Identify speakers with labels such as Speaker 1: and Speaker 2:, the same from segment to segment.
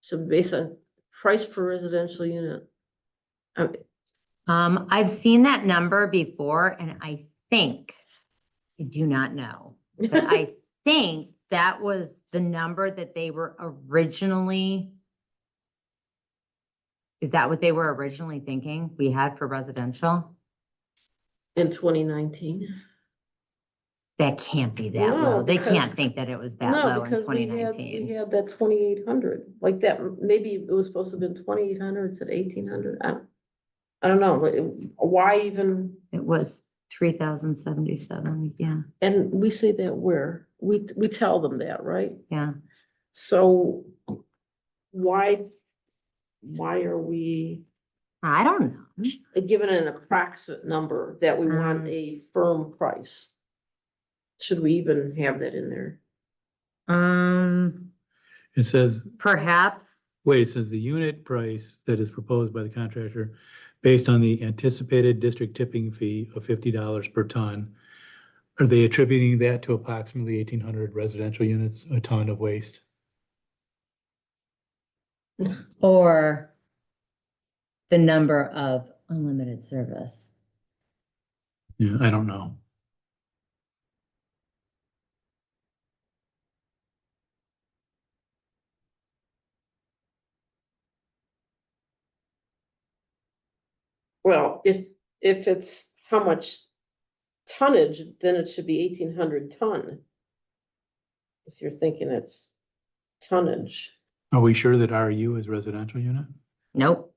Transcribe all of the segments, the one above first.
Speaker 1: So based on price per residential unit. Um,
Speaker 2: Um, I've seen that number before and I think, I do not know, but I think that was the number that they were originally. Is that what they were originally thinking we had for residential?
Speaker 1: in twenty nineteen.
Speaker 2: That can't be that low.
Speaker 1: No,
Speaker 2: They can't
Speaker 1: because-
Speaker 2: think that it was that
Speaker 1: No,
Speaker 2: low in
Speaker 1: because we
Speaker 2: twenty
Speaker 1: had We
Speaker 2: nineteen.
Speaker 1: had that twenty-eight hundred, like that, maybe it was supposed to have been twenty-eight hundred, it's at eighteen hundred, I don't. I don't know, but it- why even,
Speaker 2: It was three thousand seventy-seven, yeah,
Speaker 1: and we say that where, we, we tell them that, right?
Speaker 2: yeah.
Speaker 1: So why, why are we
Speaker 2: I don't know.
Speaker 1: given an approximate number that we want
Speaker 2: Um.
Speaker 1: a firm price? Should we even have that in there?
Speaker 2: Um,
Speaker 3: It says,
Speaker 2: perhaps
Speaker 3: wait, it says the unit price that is proposed by the contractor based on the anticipated district tipping fee of fifty dollars per ton. Are they attributing that to approximately eighteen hundred residential units, a ton of waste?
Speaker 2: Or the number of unlimited service.
Speaker 3: Yeah, I don't know.
Speaker 1: Well, if, if it's how much tonnage, then it should be eighteen hundred ton. If you're thinking it's tonnage,
Speaker 3: Are we sure that RU is residential unit?
Speaker 2: Nope.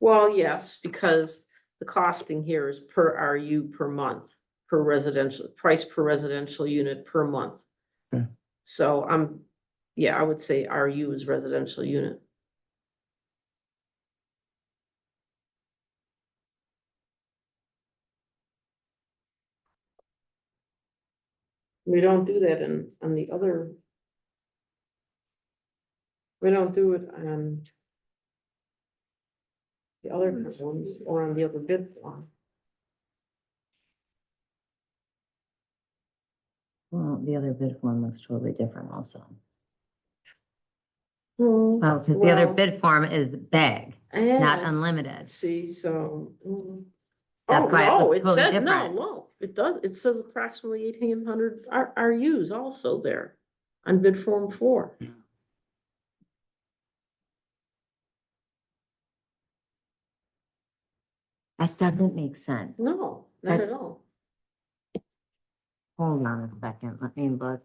Speaker 1: well, yes, because the costing here is per RU per month, per residential, price per residential unit per month.
Speaker 3: Okay.
Speaker 1: So I'm, yeah, I would say RU is residential unit. We don't do that in, on the other. We don't do it on. The other ones or on the other bid one.
Speaker 2: Well, the other bid form looks totally different also.
Speaker 1: Well,
Speaker 2: Well, because Oh, the other
Speaker 1: Well-
Speaker 2: bid form is bag. unlimited.
Speaker 1: See, so. mm.
Speaker 2: That's
Speaker 1: Oh,
Speaker 2: why it
Speaker 1: no,
Speaker 2: looks
Speaker 1: it
Speaker 2: totally
Speaker 1: said- No,
Speaker 2: different.
Speaker 1: no, it does, it says approximately eighteen hundred R, RUs also there on bid form four.
Speaker 3: Yeah.
Speaker 2: That doesn't make sense.
Speaker 1: No, not
Speaker 2: That-
Speaker 1: at all.
Speaker 2: Hold on a second, let me look.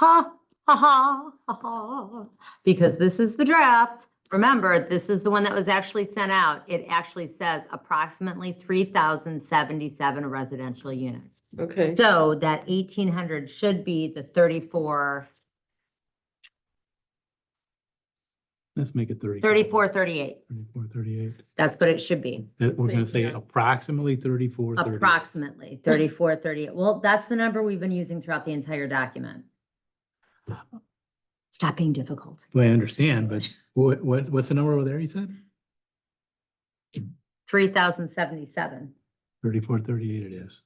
Speaker 2: Ha, ha, ha, ha, ha, because this is the draft. Remember, this is the one that was actually sent out. It actually says approximately three thousand seventy-seven residential units.
Speaker 1: Okay,
Speaker 2: So that eighteen hundred should be the thirty-four,
Speaker 3: Let's make it thirty.
Speaker 2: thirty-four, thirty-eight.
Speaker 3: Thirty-four, thirty-eight.
Speaker 2: That's what it should be,
Speaker 3: That, we're gonna
Speaker 1: Thank
Speaker 3: say
Speaker 1: you.
Speaker 3: approximately thirty-four, thirty.
Speaker 2: approximately thirty-four, thirty-eight. Well, that's the number we've been using throughout the entire document. Stop being difficult.
Speaker 3: Well, I understand, but what, what, what's the number over there, you said?
Speaker 2: Three thousand seventy-seven.
Speaker 3: Thirty-four, thirty-eight it is.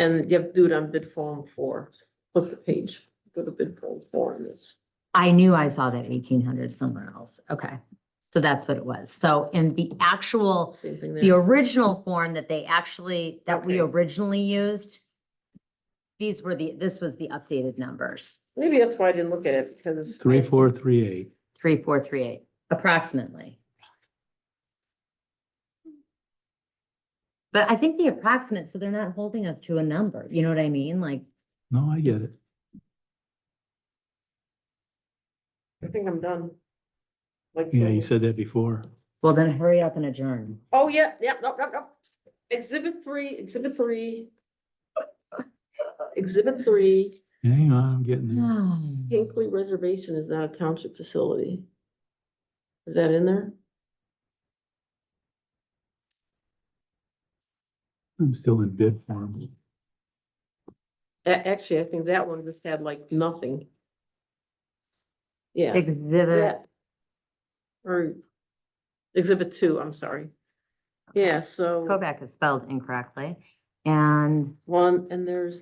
Speaker 1: and you have to do it on bid form four, flip the page, go to bid form four on this.
Speaker 2: I knew I saw that eighteen hundred somewhere else. Okay. So that's what it was. So in the actual,
Speaker 1: Same thing
Speaker 2: the
Speaker 1: there.
Speaker 2: original form that they actually, that we
Speaker 1: Okay.
Speaker 2: originally used, these were the, this was the updated numbers,
Speaker 1: Maybe that's why I didn't look at it because.
Speaker 3: Three, four, three, eight.
Speaker 2: three, four, three, eight, approximately. But I think the approximate, so they're not holding us to a number. You know what I mean? Like,
Speaker 3: No, I get it.
Speaker 1: I think I'm done. Like,
Speaker 3: Yeah, you said that before.
Speaker 2: well, then hurry up and adjourn.
Speaker 1: Oh, yeah, yeah, no, no, no. Exhibit three, exhibit three. Exhibit three,
Speaker 3: Hang on, I'm getting there.
Speaker 1: Hinkley Reservation is not a township facility. Is that in there?
Speaker 3: I'm still in bid form.
Speaker 1: A- actually, I think that one just had like nothing. Yeah,
Speaker 2: Exhibit.
Speaker 1: that. Or exhibit two, I'm sorry. Yeah, so
Speaker 2: Quebec is spelled incorrectly. And
Speaker 1: one, and there's